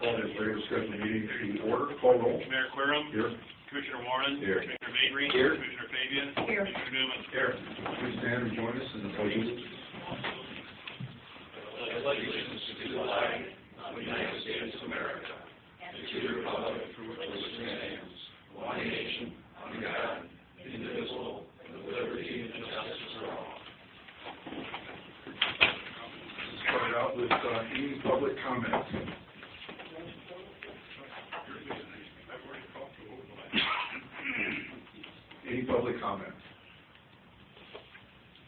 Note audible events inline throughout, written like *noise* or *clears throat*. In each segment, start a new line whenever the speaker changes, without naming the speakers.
Call this regular scheduled meeting to order, call roll.
Mayor Querem.
Here,
Commissioner Warren.
Here.
Commissioner Mabry.
Here.
Commissioner Fabia.
Here.
Commissioner Newman.
here, please stand and join us in the pledge of allegiance. Start out with, uh, any public comments. Any public comments?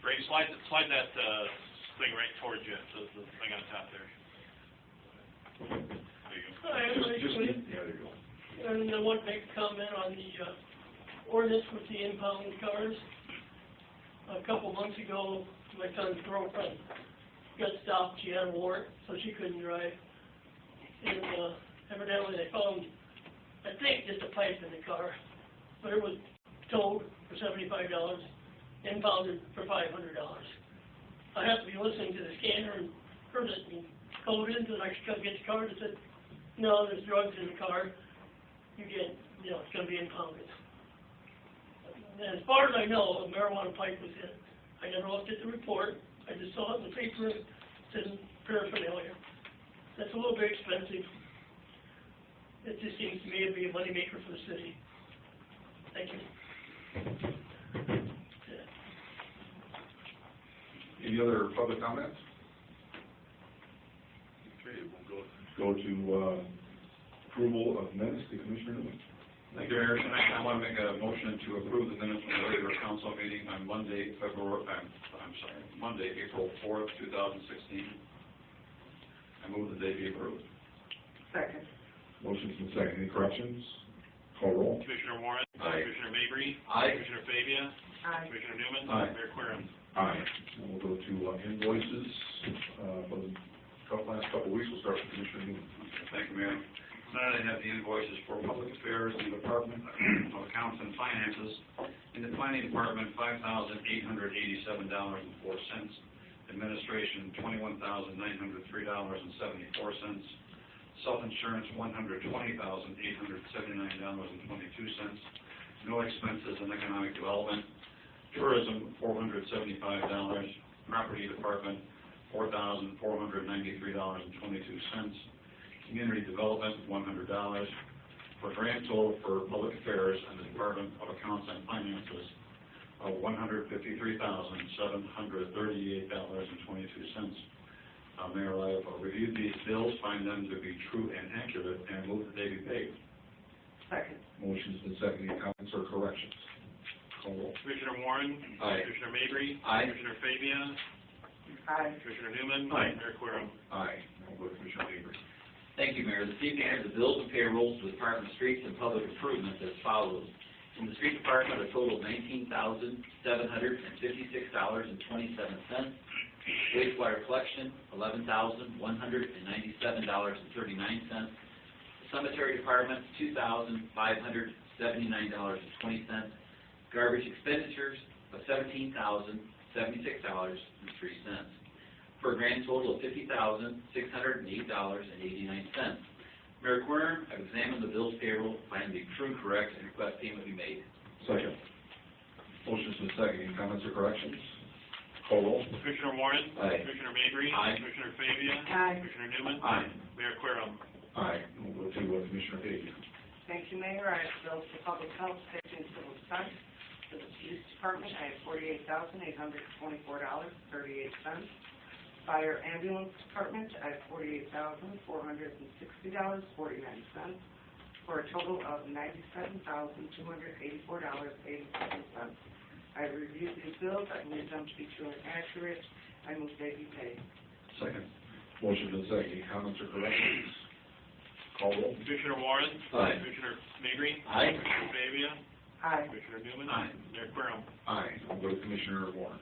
Ray, slide, slide that, uh, thing right towards you, the, the thing on top there. There you go.
Hi, I'd
Just,
like
just,
to,
yeah, there you go.
and I want to make a comment on the uh, ordinance with the impound cars. A couple months ago, my son's girlfriend got stopped, she had a warrant, so she couldn't drive. And uh, evidently they found, I think, just a pipe in the car, but it was towed for seventy-five dollars, impounded for five hundred dollars. I happened to be listening to the scanner and heard it and called into the next guy gets the car and said, no, there's drugs in the car, you get, you know, it's gonna be impounded. And as far as I know, a marijuana pipe was in. I never looked at the report, I just saw it in the paper, it said paraphernalia. That's a little bit expensive. It just seems to me it'd be a moneymaker for the city. Thank you.
Any other public comments? Okay, we'll go. Go to, uh, approval of minutes to Commissioner Newman.
Thank you, Mayor. Tonight, I want to make a motion to approve the minutes from the regular council meeting on Monday, February, I'm, I'm sorry, Monday, April fourth, two thousand sixteen. I move that they be approved.
Second.
Motion's been seconded, any corrections? Call roll.
Commissioner Warren.
Aye.
Commissioner Mabry.
Aye.
Commissioner Fabia.
Aye.
Commissioner Newman.
Aye.
Mayor Querem.
Aye. And we'll go to uh, invoices, uh, for the couple, last couple of weeks, we'll start with Commissioner Newman.
Thank you, Mayor. Tonight, I have the invoices for public affairs in the Department *clears throat* of Accounts and Finances. In the Planning Department, five thousand eight hundred eighty-seven dollars and four cents. Administration, twenty-one thousand nine hundred three dollars and seventy-four cents. Self-insurance, one hundred twenty thousand eight hundred seventy-nine dollars and twenty-two cents. No expenses in economic development. Tourism, four hundred seventy-five dollars. Property Department, four thousand four hundred ninety-three dollars and twenty-two cents community development, one hundred dollars, for grant total for public affairs and the Department of Accounts and Finances of one hundred fifty-three thousand, seven hundred thirty-eight dollars and twenty-two cents. Uh, Mayor, I have reviewed these bills, find them to be true and accurate, and move that they be paid.
Second.
Motion's been seconded, any comments or corrections? Call roll.
Commissioner Warren.
Aye.
Commissioner Mabry.
Aye.
Commissioner Fabia.
Aye.
Commissioner Newman.
Aye.
Mayor Querem.
Aye. Now we'll go to Commissioner Avery.
Thank you, Mayor. This evening, I have the bills and payrolls for the Department of Streets and Public Improvements as follows. From the Street Department, a total of nineteen thousand, seven hundred and fifty-six dollars and twenty-seven cents. Wastewater collection, eleven thousand, one hundred and ninety-seven dollars and thirty-nine cents. Cemetery Department, two thousand, five hundred, seventy-nine dollars and twenty cents. Garbage expenditures of seventeen thousand, seventy-six dollars and three cents for a grand total of fifty thousand, six hundred and eight dollars and eighty-nine cents. Mayor Querem, I've examined the bills payroll, find the true correct, and request payment be made.
Second. Motion's been seconded, any comments or corrections? Call roll.
Commissioner Warren.
Aye.
Commissioner Mabry.
Aye.
Commissioner Fabia.
Aye.
Commissioner Newman.
Aye.
Mayor Querem.
Aye. We'll go to uh, Commissioner Avery.
Thank you, Mayor. I have bills for public health, safety, and civil defense. For the police department, I have forty-eight thousand, eight hundred twenty-four dollars, thirty-eight cents. Fire ambulance department, I have forty-eight thousand, four hundred and sixty dollars, forty-nine cents, for a total of ninety-seven thousand, two hundred eighty-four dollars, eighty-seven cents. I reviewed these bills. I believe them to be true and accurate. I move they be paid.
Second.
Motion's been seconded, any comments or corrections? Call roll.
Commissioner Warren.
Aye.
Commissioner Mabry.
Aye.
Commissioner Fabia.
Aye.
Commissioner Newman.
Aye.
Mayor Querem.
Aye. We'll go to Commissioner Warren.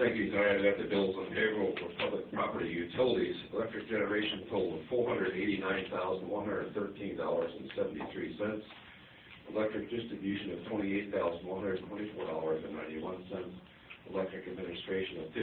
Thank you, Diane. That the bills on payroll for public property utilities, electric generation total of four hundred eighty-nine thousand, one hundred thirteen dollars and seventy-three cents. Electric distribution of twenty-eight thousand, one hundred twenty-four dollars and ninety-one cents. Electric administration of fifty